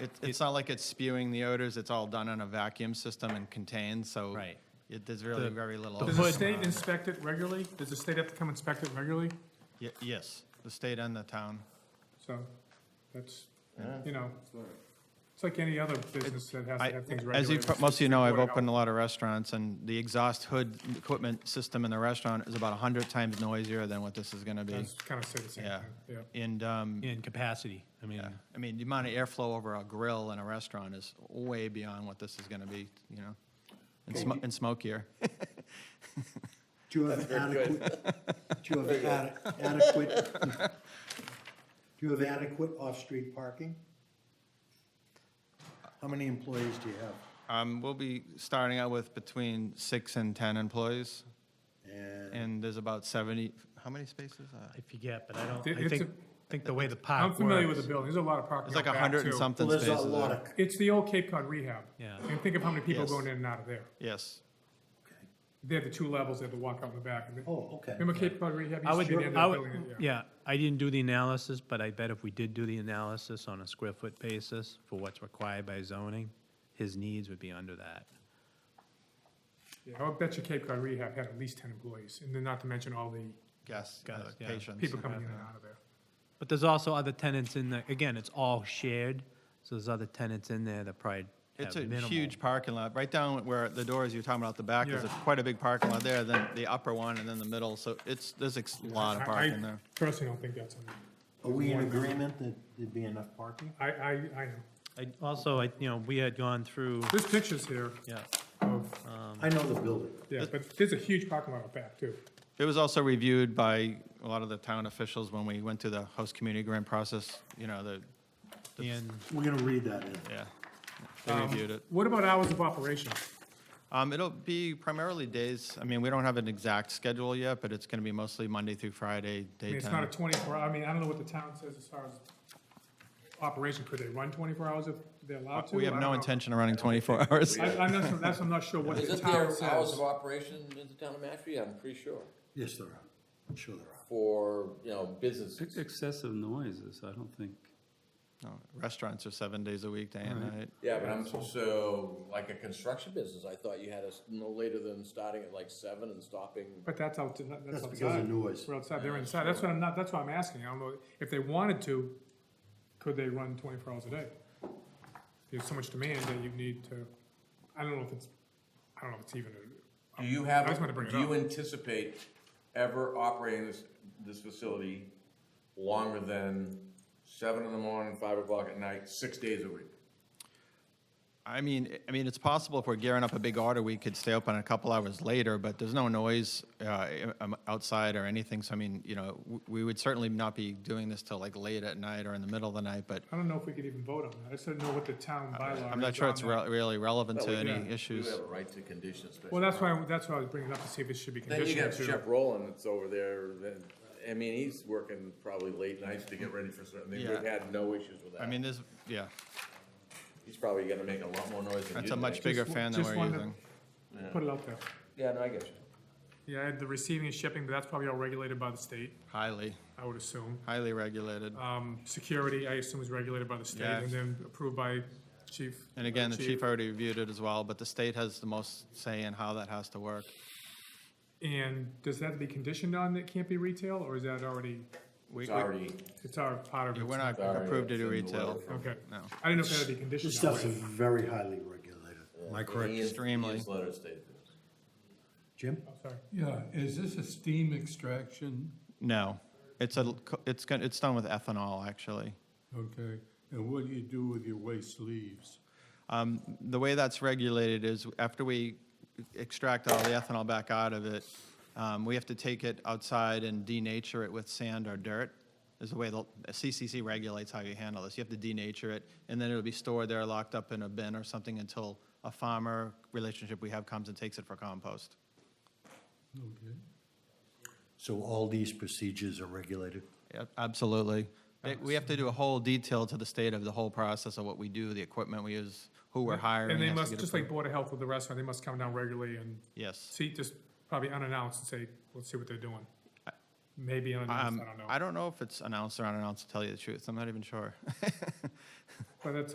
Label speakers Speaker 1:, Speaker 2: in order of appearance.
Speaker 1: It, it's not like it's spewing the odors. It's all done in a vacuum system and contained, so.
Speaker 2: Right.
Speaker 1: It, there's really very little. Uh,
Speaker 3: Does the
Speaker 1: overlap.
Speaker 3: state inspect it regularly? Does the state have to come inspect it regularly?
Speaker 1: Ye- Yes, the state and the town.
Speaker 3: So that's, you know, it's like any other business that has
Speaker 1: I-
Speaker 3: to have things
Speaker 1: As you,
Speaker 3: regulated.
Speaker 1: pro- most of you know, I've
Speaker 3: Report out.
Speaker 1: opened a lot of restaurants, and the exhaust hood equipment system in the restaurant is about 100 times noisier than what this is going to be.
Speaker 3: That's kind of say the same
Speaker 1: Yeah.
Speaker 3: thing, yeah.
Speaker 1: And, um,
Speaker 2: in capacity. I mean,
Speaker 1: I mean, the amount of airflow over a grill in a restaurant is way beyond what this is going to be, you know? And sm- and smokier.
Speaker 4: Do you have adequate, do you have ade- adequate, do you have adequate off-street parking? How many employees do you have?
Speaker 1: Um, We'll be starting out with between six and 10 employees,
Speaker 4: And
Speaker 1: and there's about 70, how many spaces? Uh,
Speaker 2: I forget, but I don't,
Speaker 3: It-
Speaker 2: I
Speaker 3: it's
Speaker 2: think,
Speaker 3: a-
Speaker 2: think the way the park
Speaker 3: I'm
Speaker 2: works.
Speaker 3: familiar with the building, there's a lot of parking
Speaker 1: It's
Speaker 3: out
Speaker 1: like
Speaker 3: back,
Speaker 1: 100 and
Speaker 3: too.
Speaker 1: something
Speaker 4: well, there's
Speaker 1: spaces.
Speaker 4: a lot
Speaker 1: there.
Speaker 4: of,
Speaker 3: It's the old Cape Cod rehab.
Speaker 2: Yeah.
Speaker 3: And think of how many people
Speaker 1: Yes.
Speaker 3: going in and out of there.
Speaker 1: Yes.
Speaker 3: They have the two levels, they have to walk out in the back. and they-
Speaker 4: oh, okay.
Speaker 3: Remember Cape Cod rehab?
Speaker 2: I
Speaker 3: used
Speaker 2: would,
Speaker 3: to be the end
Speaker 2: I
Speaker 3: of the
Speaker 2: would,
Speaker 3: building, yeah.
Speaker 2: yeah, I didn't do the analysis, but I bet if we did do the analysis on a square foot basis for what's required by zoning, his needs would be under that.
Speaker 3: Yeah, I would bet you Cape Cod Rehab had at least ten employees, and then not to mention all the
Speaker 1: Guests,
Speaker 2: Got
Speaker 1: uh,
Speaker 2: it, yeah.
Speaker 1: patients.
Speaker 3: people coming in and out of there.
Speaker 2: But there's also other tenants in there, again, it's all shared, so there's other tenants in there that probably have
Speaker 1: It's a
Speaker 2: minimal.
Speaker 1: huge parking lot, right down where the doors you're talking about the back, there's a-
Speaker 3: Yeah.
Speaker 1: quite a big parking lot there, then the upper one, and then the middle, so it's, there's a lot of
Speaker 3: I- I
Speaker 1: parking there.
Speaker 3: Personally, don't think that's, enough.
Speaker 4: Are we in agreement that there'd be enough parking?
Speaker 3: I, I, I know.
Speaker 2: I, also, I, you know, we had gone through,
Speaker 3: This picture's here
Speaker 2: yeah,
Speaker 3: of,
Speaker 4: I know the building.
Speaker 3: yeah, but there's a huge parking lot out back, too.
Speaker 1: It was also reviewed by a lot of the town officials when we went through the host community grant process, you know, the,
Speaker 2: and
Speaker 4: We're gonna read that in.
Speaker 1: yeah, they
Speaker 3: Um,
Speaker 1: reviewed it.
Speaker 3: What about hours of operation?
Speaker 1: Um, it'll be primarily days, I mean, we don't have an exact schedule yet, but it's gonna be mostly Monday through Friday,
Speaker 3: I mean, it's not a
Speaker 1: daytime.
Speaker 3: twenty-four, I mean, I don't know what the town says as far as operation, could they run twenty-four hours if they're allowed to?
Speaker 1: We
Speaker 3: I
Speaker 1: have
Speaker 3: don't
Speaker 1: no
Speaker 3: know.
Speaker 1: intention of running twenty-four hours.
Speaker 3: I, I'm not, sure- that's, I'm not sure what the
Speaker 5: Isn't
Speaker 3: town
Speaker 5: there hours
Speaker 3: says.
Speaker 5: of operation in the town of Mashpee? I'm pretty sure,
Speaker 4: Yes, there are. I'm sure there are.
Speaker 5: for, you know, businesses.
Speaker 6: Ex- Excessive noises, I don't think.
Speaker 1: No, Restaurants are seven days a week, day and night.
Speaker 5: Yeah, but I'm, so, like a construction business, I thought you had us no later than starting at like seven and stopping.
Speaker 3: But that's out, to- that's
Speaker 4: That's because
Speaker 3: outside.
Speaker 4: of noise.
Speaker 3: We're outside, they're inside, that's what I'm not, that's what I'm asking, I don't know, if they wanted to, could they run twenty-four hours a day? There's so much demand that you need to, I don't know if it's, I don't know if it's even a.
Speaker 5: Do you
Speaker 3: I
Speaker 5: have,
Speaker 3: just wanted to bring it
Speaker 5: do you
Speaker 3: up.
Speaker 5: anticipate ever operating this, this facility longer than seven in the morning, five o'clock at night, six days a week?
Speaker 1: I mean, I- I mean, it's possible if we're gearing up a big order, we could stay open a couple hours later, but there's no noise uh, um, outside or anything. So I mean, you know, w- we would certainly not be doing this till like late at night or in the middle of the night, but
Speaker 3: I don't know if we could even vote on that, I just don't know what the town bylaw is
Speaker 1: I'm not sure
Speaker 3: on
Speaker 1: it's
Speaker 3: that.
Speaker 1: re- really relevant to
Speaker 3: yeah,
Speaker 1: any
Speaker 5: Do you
Speaker 1: issues.
Speaker 5: have a right to condition a special?
Speaker 3: Well, that's
Speaker 5: permit?
Speaker 3: why, that's why I was bringing it up to see if it should be
Speaker 5: Then you
Speaker 3: conditioned
Speaker 5: got
Speaker 3: to.
Speaker 5: Chef Roland that's over there, then, I mean, he's working probably late nights to get ready for certain, they've
Speaker 1: Yeah.
Speaker 5: had no issues with that.
Speaker 1: I mean, there's, yeah,
Speaker 5: He's probably gonna make a lot more noise than you.
Speaker 1: that's a much
Speaker 5: think.
Speaker 1: bigger fan than
Speaker 3: Just
Speaker 1: we're
Speaker 3: wonder-
Speaker 1: using.
Speaker 3: Put it out there.
Speaker 5: Yeah, no, I get you.
Speaker 3: Yeah, the receiving and shipping, but that's probably all regulated by the state,
Speaker 1: Highly,
Speaker 3: I would assume.
Speaker 1: highly regulated.
Speaker 3: Um, security, I assume is regulated by the state
Speaker 1: Yeah.
Speaker 3: and then approved by chief.
Speaker 1: And again, the chief already reviewed it as well, but the state has the most say in how that has to work.
Speaker 3: And does that be conditioned on it can't be retail or is that already,
Speaker 1: We-
Speaker 5: It's
Speaker 1: we-
Speaker 5: already,
Speaker 3: it's our part of it?
Speaker 1: We're not
Speaker 5: Sorry,
Speaker 1: approved to
Speaker 5: it's
Speaker 1: do
Speaker 5: in the
Speaker 1: retail,
Speaker 5: letter.
Speaker 3: Okay.
Speaker 1: no.
Speaker 3: I didn't know if that had to be
Speaker 4: This
Speaker 3: conditioned that
Speaker 4: stuff's
Speaker 3: way.
Speaker 4: very highly regulated. Am I correct?
Speaker 5: Ian's,
Speaker 1: Extremely.
Speaker 5: Ian's letter stated this.
Speaker 4: Jim?
Speaker 3: Oh, Sorry.
Speaker 7: Yeah, is this a steam extraction?
Speaker 1: No, it's a, it's gonna, it's done with ethanol, actually.
Speaker 7: Okay, and what do you do with your waste leaves?
Speaker 1: The way that's regulated is after we extract all the ethanol back out of it, um, we have to take it outside and denature it with sand or dirt. Is the way the CCC regulates how you handle this. You have to denature it, and then it'll be stored there, locked up in a bin or something until a farmer relationship we have comes and takes it for compost.
Speaker 7: Okay.
Speaker 4: So all these procedures are regulated?
Speaker 1: Yep, Absolutely. They- We have to do a whole detail to the state of the whole process of what we do, the equipment we use, who we're hiring. it
Speaker 3: And they
Speaker 1: has to
Speaker 3: must,
Speaker 1: get
Speaker 3: just like
Speaker 1: approved.
Speaker 3: Board of Health with the restaurant, they must come down regularly and
Speaker 1: Yes.
Speaker 3: see, just probably unannounced and say, let's see what they're doing. Maybe unannounced,
Speaker 1: Um,
Speaker 3: I don't
Speaker 1: I
Speaker 3: know.
Speaker 1: don't know if it's announced or unannounced, to tell you the truth. I'm not even sure.
Speaker 3: But that's